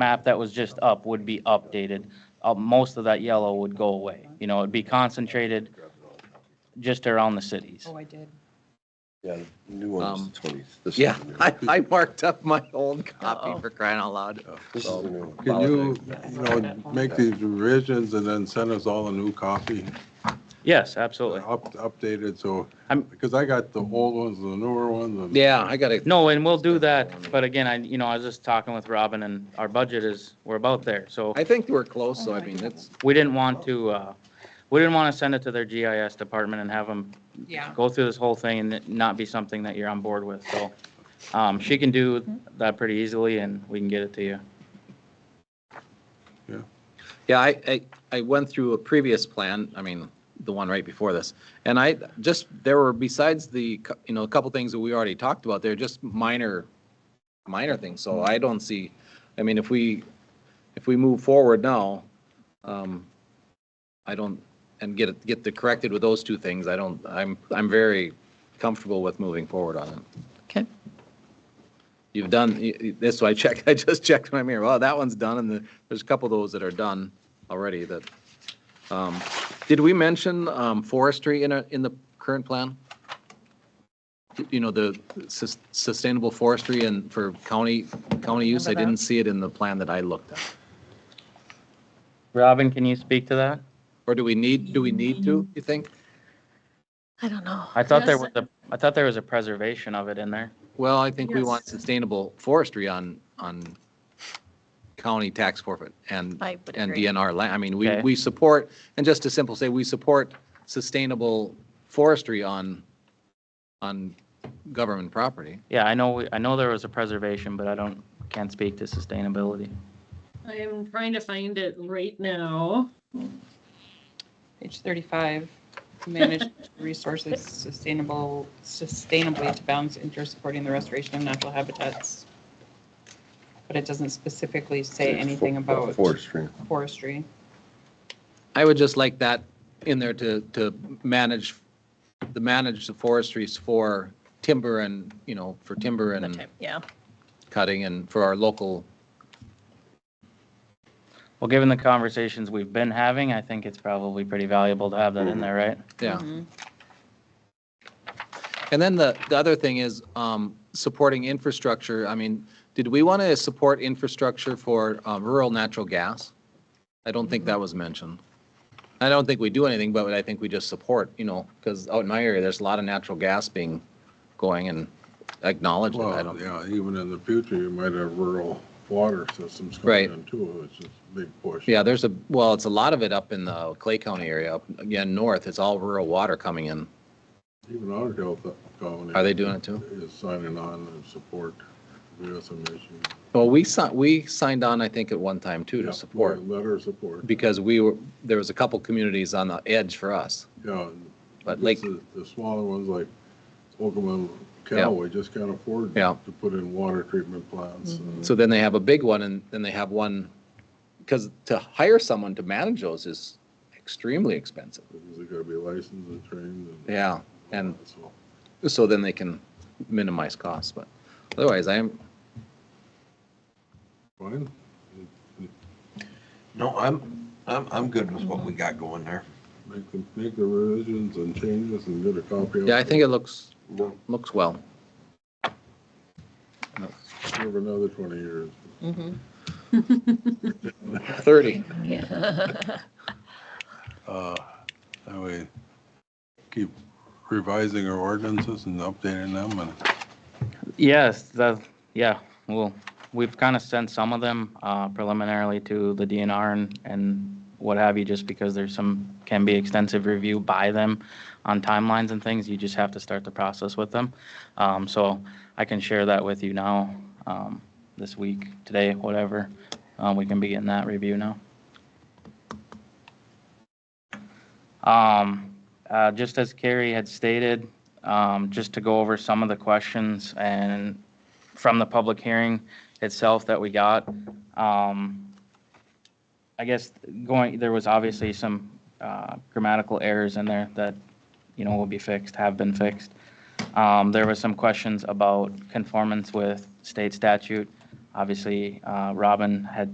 map that was just up would be updated. Uh, most of that yellow would go away. You know, it'd be concentrated just around the cities. Oh, I did. Yeah, the new one's Um, the 20th. This is Yeah, the new one. I, I marked up my old copy Uh-oh. for crying out loud. This is the new one. Can you, you know, make these revisions and then send us all a new copy, Yes, absolutely. up updated, so, I'm- because I got the old ones, the newer ones, and Yeah, I gotta. No, and we'll do that, but again, I, you know, I was just talking with Robin and our budget is, we're about there, so I think we're close, so I mean, it's, we didn't want to, uh, we didn't want to send it to their GIS department and have them Yeah. go through this whole thing and it not be something that you're on board with, so. Um, she can do that pretty easily and we can get it to you. yeah, I, I, I went through a previous plan, I mean, the one right before this. And I just, there were, besides the, cou- you know, a couple things that we already talked about, they're just minor, minor things, so I don't see, I mean, if we, if we move forward now, um, I don't, and get it, get the corrected with those two things, I don't, I'm, I'm very comfortable with moving forward on it. Okay. You've done, y- y- this, so I checked, I just checked my mirror, well, that one's done, and the- there's a couple of those that are done already that, um, did we mention um, forestry in a, in the current plan? You know, the sus- sustainable forestry and for county, county use, I Remember that? didn't see it in the plan that I looked at. Robin, can you speak to that? Or do we need, do we need to, you think? I don't know. I thought there was a, I thought there was a preservation of it in there. Well, I think we want Yes. sustainable forestry on, on county tax forfeit and, I would and agree. DNR land. I mean, we, Okay. we support, and just to simple say, we support sustainable forestry on, on government property. Yeah, I know, we- I know there was a preservation, but I don't, can't speak to sustainability. I am trying to find it right now. Page thirty-five, manage resources sustainable, sustainably to balance interests supporting the restoration of natural habitats. But it doesn't specifically say anything about Forestry. forestry. I would just like that in there to, to manage, the manage the forestries for timber and, you know, for timber and Yeah, cutting and for our local, Well, given the conversations we've been having, I think it's probably pretty valuable to have that in there, right? yeah. And then the, the other thing is um, supporting infrastructure. I mean, did we want to support infrastructure for um, rural natural gas? I don't think that was mentioned. I don't think we do anything, but I think we just support, you know, because out in my area, there's a lot of natural gas being going and acknowledged. it. I well, don't, yeah, even in the future, you might have rural water systems Right. coming in too, which is a big push. yeah, there's a, well, it's a lot of it up in the Clay County area, up again, north. It's all rural water coming in. Even our Delta County. Are they doing it too? Is signing on and support, we have some issues. Well, we signed, we signed on, I think, at one time too Yeah, to support. Letter of support, because we were, there was a couple communities on the edge for us, yeah. and but like, this is- The smaller ones like Oklahoma, Yeah. Callaway just can't afford Yeah. to put in water treatment plants. and- so then they have a big one and then they have one, because to hire someone to manage those is extremely expensive. Because they gotta be licensed and trained and. Yeah, and That's all. so then they can minimize costs, but otherwise I am, Fine. No, I'm, I'm, I'm good with what we got going there. Make the, make the revisions and changes and get a copy. of yeah, I think it looks, No, looks well. Give another twenty years. Thirty. Uh, that way, keep revising our ordinances and updating them and. Yes, the, yeah, well, we've kind of sent some of them uh, preliminarily to the DNR and, and what have you, just because there's some, can be extensive review by them on timelines and things. You just have to start the process with them. Um, So I can share that with you now, um, this week, today, whatever. Uh, We can begin that review now. Um, uh, Just as Carrie had stated, um, just to go over some of the questions and from the public hearing itself that we got. Um, I guess going, there was obviously some uh, grammatical errors in there that, you know, will be fixed, have been fixed. Um, There was some questions about conformance with state statute. Obviously, uh, Robin had